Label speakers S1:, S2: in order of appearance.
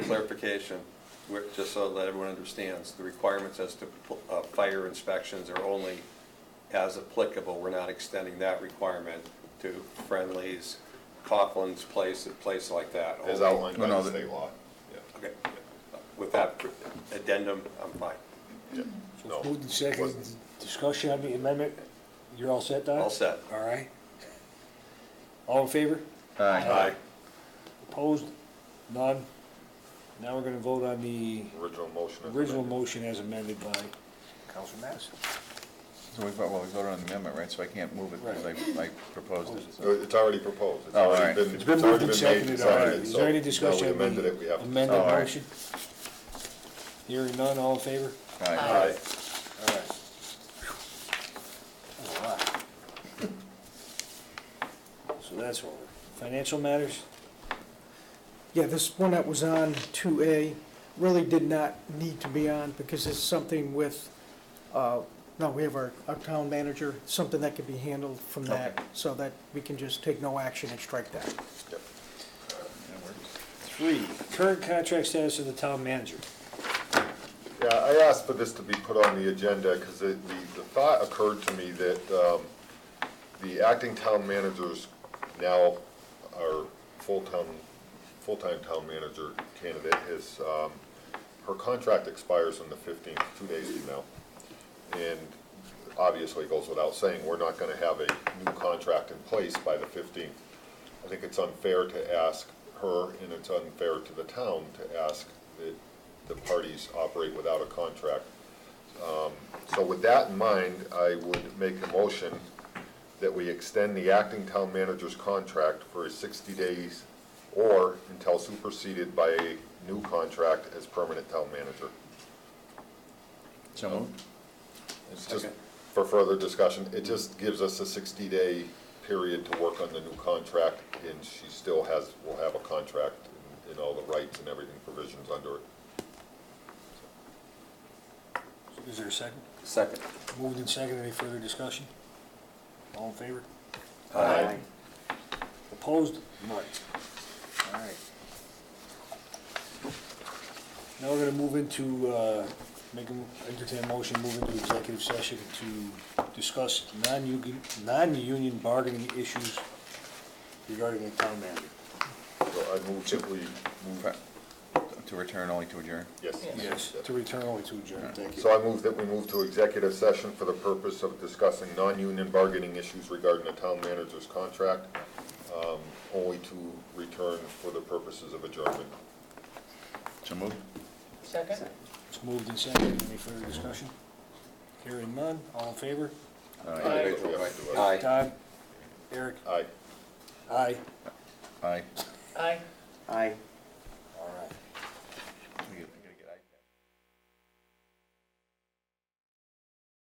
S1: clarification, we're- just so that everyone understands, the requirements as to uh, fire inspections are only as applicable. We're not extending that requirement to Friendly's, Coughlin's place, place like that.
S2: as outlined by
S3: Oh, No, no,
S2: the
S3: the-
S2: state law. Yeah.
S1: Okay. With that addendum, I'm fine.
S2: No.
S4: Moved and seconded, discussion on the amendment, you're all set, Don?
S1: All set.
S4: All right. All in favor?
S3: Uh,
S1: Aye.
S4: Opposed? None? Now we're gonna vote on the
S2: Original motion. is
S4: original
S2: amended.
S4: motion as amended by Council Madison.
S3: So we, vote- well, we voted on the amendment, right, so I can't move it because I, I proposed it, so.
S2: No, It's already proposed. It's
S3: Oh, all
S2: already
S3: right.
S4: It's been moved
S2: already
S4: and
S2: made,
S4: seconded,
S2: it's
S4: all right,
S2: already-
S4: is
S2: so
S4: there any
S2: now we
S4: discussion on
S2: amended it, we
S4: the
S2: have to-
S4: amended
S3: All right.
S4: motion? Hearing none, all in favor?
S3: Aye.
S2: Aye.
S4: All right. That's a lot. So that's over. Financial matters?
S5: Yeah, this one that was on 2A really did not need to be on because it's something with, uh, no, we have our, our town manager, something that could be handled from that, so that we can just take no action and strike that.
S2: Yep.
S3: That works.
S4: Three, current contract status of the town manager.
S2: Yeah, I asked for this to be put on the agenda because the, the thought occurred to me that um, the acting town managers now are full-time, full-time town manager candidate is, um, her contract expires on the fifteenth, two days from now. And obviously it goes without saying, we're not gonna have a new contract in place by the fifteenth. I think it's unfair to ask her, and it's unfair to the town to ask that the parties operate without a contract. Um, So with that in mind, I would make a motion that we extend the acting town manager's contract for sixty days or until superseded by a new contract as permanent town manager.
S3: So moved?
S2: It's just
S1: Second.
S2: for further discussion, it just gives us a sixty-day period to work on the new contract, and she still has, will have a contract and all the rights and everything provisions under it.
S4: Is there a second?
S1: Second.
S4: Moved and seconded. Any further discussion? All in favor?
S2: Aye.
S4: Opposed? None. All right. Now we're gonna move into, uh, make a, mo- entertain a motion, move into executive session to discuss non-union, non-union bargaining issues regarding the town manager.
S2: So I move simply,
S3: Move it. To return only to adjourn?
S2: yes.
S4: Yes, to return only to adjourn. Thank you.
S2: So I move that we move to executive session for the purpose of discussing non-union bargaining issues regarding the town manager's contract, um, only to return for the purposes of adjournment.
S3: So moved?
S6: Second?
S4: It's moved and seconded. Any further discussion? Hearing none. All in favor?
S3: Aye.
S2: Individually, we have to do it.
S1: Aye.
S4: Todd? Eric?
S2: Aye.
S4: Aye.
S3: Aye.
S6: Aye.
S4: All right.